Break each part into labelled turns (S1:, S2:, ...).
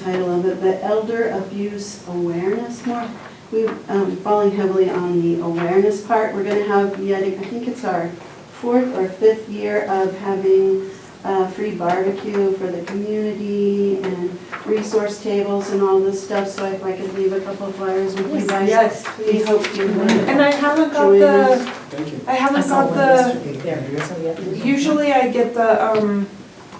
S1: title of it, but Elder Abuse Awareness more. We're um, falling heavily on the awareness part. We're going to have yet, I think it's our fourth or fifth year of having uh, free barbecue for the community and resource tables and all this stuff, so if I could leave a couple flyers with you guys.
S2: Yes,
S1: We
S2: please.
S1: hope you would.
S2: And I haven't got
S1: Join
S2: the,
S3: Thank you.
S2: I haven't got the, usually I get the um,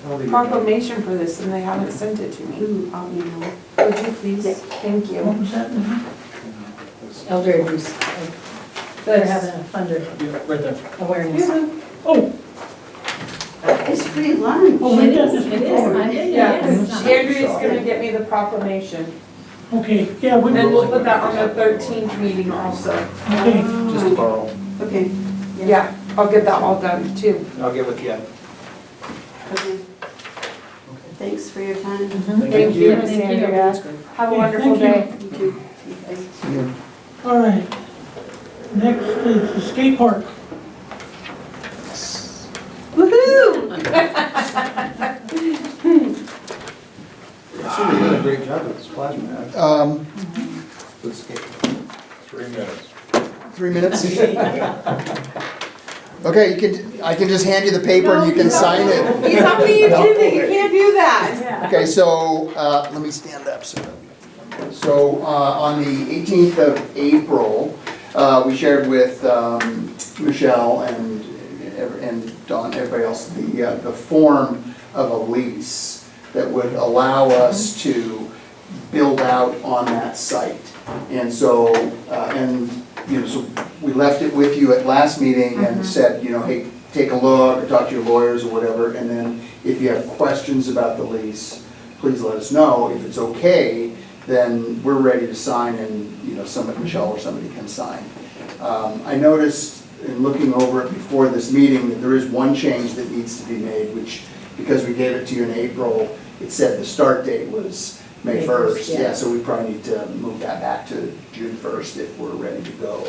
S3: I'll leave it.
S2: proclamation for this and they haven't sent it to me.
S1: Ooh, I'll be now.
S2: Would you please? Thank you.
S4: Elder abuse. Better have a funder
S3: Yeah, right there.
S4: awareness.
S3: Oh,
S1: It's free lunch.
S3: Oh,
S4: It is, it is, I did,
S2: Yeah,
S4: yes.
S2: Andrea's gonna get me the proclamation.
S5: Okay, yeah, we,
S2: And
S5: okay,
S2: we'll put that on the thirteenth meeting also.
S3: just
S1: Ah,
S3: borrow.
S1: Okay,
S2: Yeah, I'll get that all done too.
S3: I'll get with you.
S1: okay. Thanks for your time.
S2: Mm-hmm. Thank you, Miss
S4: Thank you.
S2: Andrea. Have a
S5: Okay,
S2: wonderful
S5: thank you.
S2: day.
S1: You too. Bye.
S5: all right. Next is the skate park.
S2: Woohoo!
S3: Actually, you did a great job with the splash pad.
S6: Um,
S3: Good skate.
S7: Three minutes.
S6: three minutes? Okay, you can, I can just hand you the paper and you can sign it.
S2: You tell me you did that, you can't do that.
S6: Okay, so, uh, let me stand up, so. So, uh, on the eighteenth of April, uh, we shared with, um, Michelle and, ev- and Don, everybody else, the, uh, the form of a lease that would allow us to build out on that site. And so, uh, and, you know, so we left it with you at last meeting and said, you know, hey, take a look, or talk to your lawyers or whatever, and then if you have questions about the lease, please let us know. If it's okay, then we're ready to sign and, you know, somebody, Michelle or somebody can sign. Um, I noticed in looking over it before this meeting that there is one change that needs to be made, which, because we gave it to you in April, it said the start date was May
S4: May
S6: first.
S4: first,
S6: Yeah,
S4: yeah.
S6: so we probably need to move that back to June first if we're ready to go.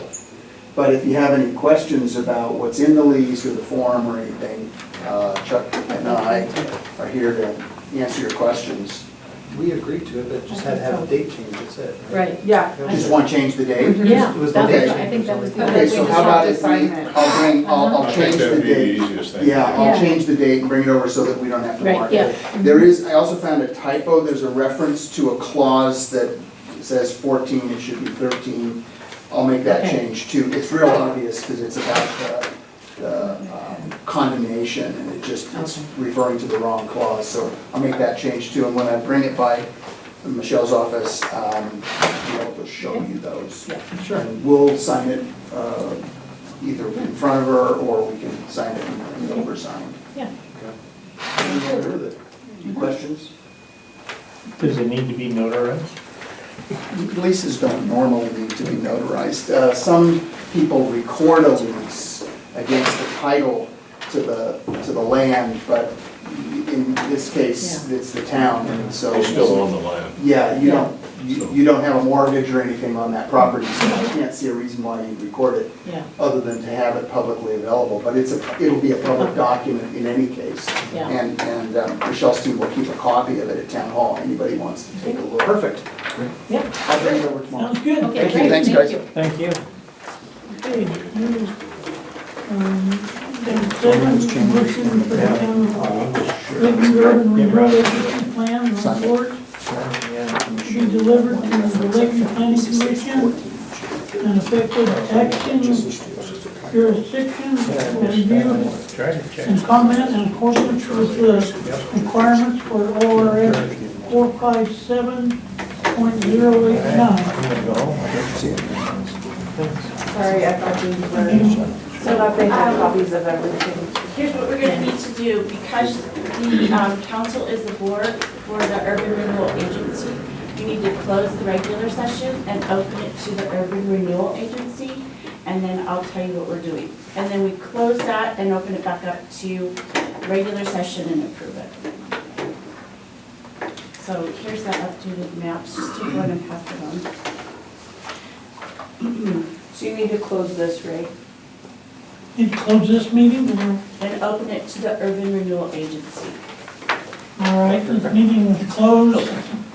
S6: But if you have any questions about what's in the lease or the form or anything, uh, Chuck and I are here to answer your questions.
S3: We agreed to it, but just had to have a date change, that's it.
S4: Right,
S2: Yeah.
S6: Just want to change the date?
S4: yeah,
S3: It was
S4: that
S6: the
S4: was,
S6: day.
S4: I think that was the.
S2: Okay,
S6: Okay, so
S2: we
S6: how
S2: just
S6: about
S2: have to
S6: if we,
S2: sign it.
S6: I'll bring, I'll, I'll
S7: I think
S6: change the
S7: that'd be the
S6: date.
S7: easiest thing.
S6: Yeah, I'll
S4: Yeah.
S6: change the date and bring it over so that we don't have to
S4: Right,
S6: mark
S4: yeah. Mm-hmm.
S6: it. There is, I also found a typo, there's a reference to a clause that says fourteen, it should be thirteen. I'll make that
S4: Okay.
S6: change too. It's real obvious because it's about the, the um, condemnation and it just, it's
S4: Okay.
S6: referring to the wrong clause. So I'll make that change too. And when I bring it by Michelle's office, um, I'll just show you those.
S4: Yeah.
S6: Sure. And we'll sign it, uh, either in front of her or we can sign it and bring it over signed.
S4: Yeah.
S6: Any questions?
S8: Does it need to be notarized?
S6: Leases don't normally need to be notarized. Uh, Some people record a lease against the title to the, to the land, but in this case, it's the town, and so.
S7: They still own the land.
S6: Yeah, you don't, you you don't have a mortgage or anything on that property, so I can't see a reason why you'd record it,
S4: Yeah,
S6: other than to have it publicly available, but it's a, it'll be a public document in any case.
S4: Yeah.
S6: And, and um, Michelle's team will keep a copy of it at town hall, anybody wants to take a look. Perfect.
S4: yeah,
S6: I'll bring it over tomorrow.
S5: Sounds good.
S4: okay,
S6: Thank you,
S4: great, thank
S6: thanks, guys.
S4: you.
S8: Thank you.
S5: Okay, here's, um, the second motion for the town of Clinton Urban Revitalization Plan report to be delivered to the Lakeview Planning Commission and effective action jurisdiction for review
S8: Try to check.
S5: and comment in accordance with the requirements for ORS four five seven point zero eight nine.
S2: Sorry, I thought you were, Um, so that they had copies of everything.
S9: Here's what we're gonna need to do, because the um, council is the board for the urban renewal agency, you need to close the regular session and open it to the urban renewal agency, and then I'll tell you what we're doing. And then we close that and open it back up to regular session and approve it. So here's that updated map, just take one and pass it on.
S2: So you need to close this, right?
S5: And close this meeting, or,
S9: And open it to the urban renewal agency.
S5: all right, this meeting is closed